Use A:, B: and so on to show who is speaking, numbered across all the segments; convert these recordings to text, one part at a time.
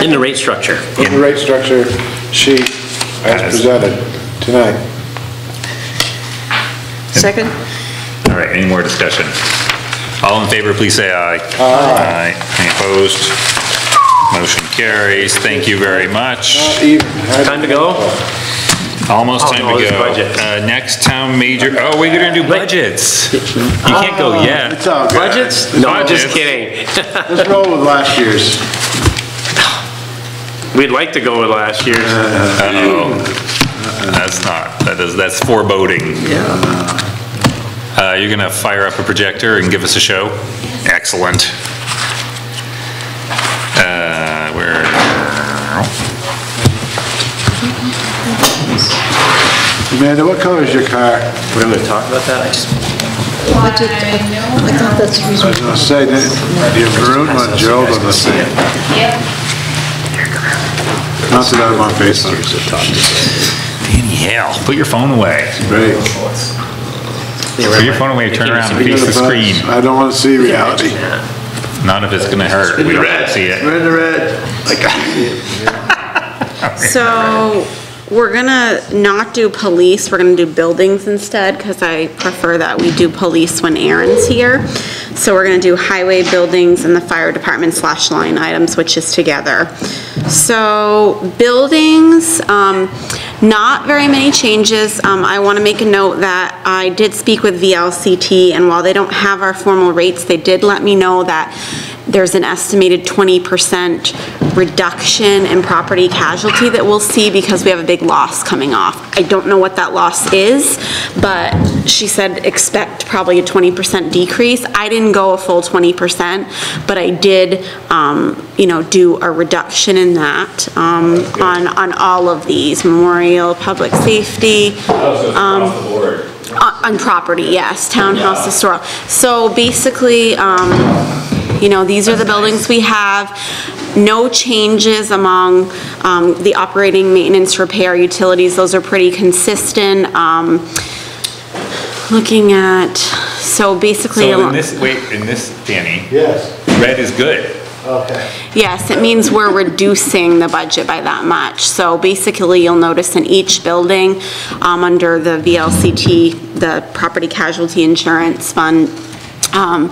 A: in the rate structure.
B: in the rate structure sheet as presented tonight.
C: Second?
D: All right, any more discussion? All in favor, please say aye. Aye. Any opposed? Motion carries. Thank you very much.
B: Even-
A: Time to go?
D: Almost
A: Oh,
D: time
A: no,
D: to
A: it's
D: go.
A: budget.
D: Uh, Next town major, oh, we're gonna do budgets. You can't go yet.
B: Ah, It's all good.
A: Budgets? No, I'm just
D: Budgets.
A: kidding.
B: Let's roll with last year's.
A: We'd like to go with last year's.
D: That's not, that is, that's foreboding. Yeah. Uh, you're gonna fire up a projector and give us a show? Excellent. Uh, where?
B: Amanda, what color is your car?
A: We're gonna talk about that? I just.
C: Budget. I thought that's the
B: I
C: reason.
B: was gonna say, that your maroon one, Gerald on the same. Not that I'm on Facebook.
D: Yeah, put your phone away.
B: Great.
D: Put your phone away, turn around and face the screen.
B: I don't wanna see reality.
D: None of it's gonna hurt. We don't have to see it.
B: We're in the red.
E: So, we're gonna not do police, we're gonna do buildings instead, because I prefer that we do police when Aaron's here. So we're gonna do highway, buildings, and the fire department slash line items, which is together. So, buildings, um, not very many changes. Um, I wanna make a note that I did speak with VLCT, and while they don't have our formal rates, they did let me know that there's an estimated 20% reduction in property casualty that we'll see because we have a big loss coming off. I don't know what that loss is, but she said expect probably a 20% decrease. I didn't go a full 20%, but I did, um, you know, do a reduction in that um, on, on all of these, memorial, public safety. um, Uh, On on property, yes, townhouse, historical. So basically, um, you know, these are the buildings we have, no changes among um, the operating, maintenance, repair, utilities, those are pretty consistent. Um, Looking at, so basically,
D: So in
E: along-
D: this, wait, in this, Danny,
B: Yes,
D: red is good.
B: okay.
E: yes, it means we're reducing the budget by that much. So basically, you'll notice in each building, um, under the VLCT, the Property Casualty Insurance Fund, um,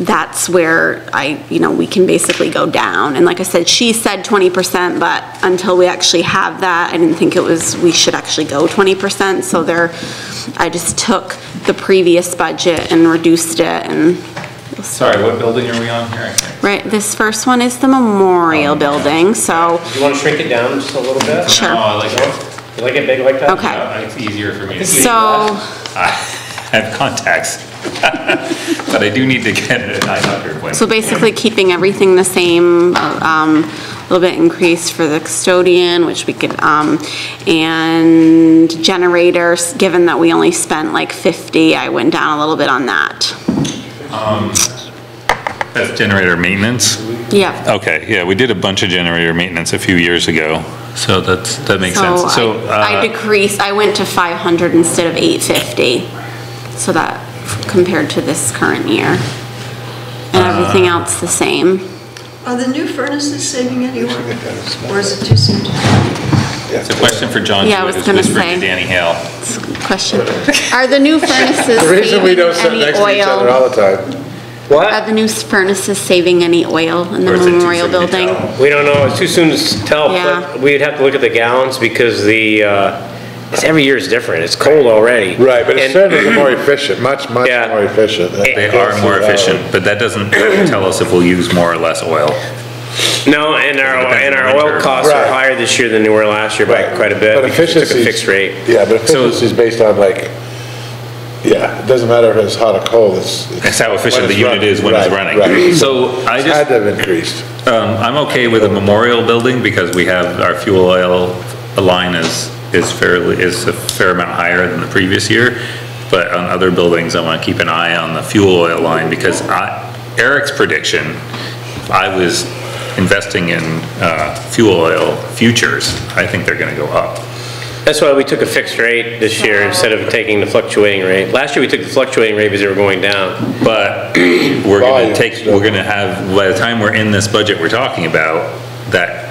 E: that's where I, you know, we can basically go down. And like I said, she said 20%, but until we actually have that, I didn't think it was, we should actually go 20%. So there, I just took the previous budget and reduced it and,
D: Sorry, what building are we on here? I can't-
E: right, this first one is the memorial building, so,
F: Oh, You want to shrink it down just a little bit?
D: Oh,
E: sure,
D: I like it.
F: You like it big like that?
E: okay.
D: Uh, It's easier for me to see.
E: So,
D: I have contacts. But I do need to get an eye doctor appointment.
E: so basically keeping everything the same, um, a little bit increase for the custodian, which we could, um, and generators, given that we only spent like 50, I went down a little bit on that.
D: That's generator maintenance?
E: Yep.
D: Okay, yeah, we did a bunch of generator maintenance a few years ago, so that's, that makes sense. So,
E: So I- I
D: uh,
E: decreased, I went to 500 instead of 850, so that compared to this current year.
B: Uh,
E: And everything else the same.
G: Are the new furnaces saving any work? Or is it too soon to tell?
D: it's a question for John.
E: Yeah, I
D: who
E: was
D: is
E: gonna
D: whispering to
E: say.
D: Danny Hale.
E: Question. Are the new furnaces
B: The reason we
E: saving
B: don't sit
E: any
B: next to each other
E: oil?
B: all the time,
E: Are
F: What?
E: the new furnaces saving any oil in the
D: Or is it too
E: memorial
D: soon to
E: building?
D: tell?
F: We don't know, it's too soon to s- tell,
E: Yeah.
F: but we'd have to look at the gallons because the, uh, it's, every year is different, it's cold already.
B: right, but it's
F: And-
B: certainly more efficient, much, much
F: Yeah.
B: more efficient.
D: They are more efficient, but that doesn't tell us if we'll use more or less oil.
F: No, and our,
D: Depends
F: and
D: on
F: our
D: the
F: oil
D: winter.
F: costs are
B: Right.
F: higher this year than they were last year by
B: Right.
F: quite a bit.
B: But
F: because we took a
B: efficiency-
F: fixed rate.
B: Yeah, but efficiency is based on like, yeah, it doesn't matter if it's hot or cold, it's.
D: That's how efficient
B: when
D: the
B: it's
D: unit
B: running.
D: is when it's
B: Right,
D: running.
B: right.
D: So I
B: It's
D: just.
B: Had to have increased.
D: Um, I'm okay with a memorial building because we have, our fuel oil line is, is fairly, is a fair amount higher than the previous year. But on other buildings, I want to keep an eye on the fuel oil line because I, Eric's prediction, if I was investing in, uh, fuel oil futures, I think they're going to go up.
F: That's why we took a fixed rate this year instead of taking the fluctuating rate. Last year, we took the fluctuating rate because they were going down.
D: But we're gonna
B: Volume.
D: take, we're gonna have, by the time we're in this budget we're talking about, that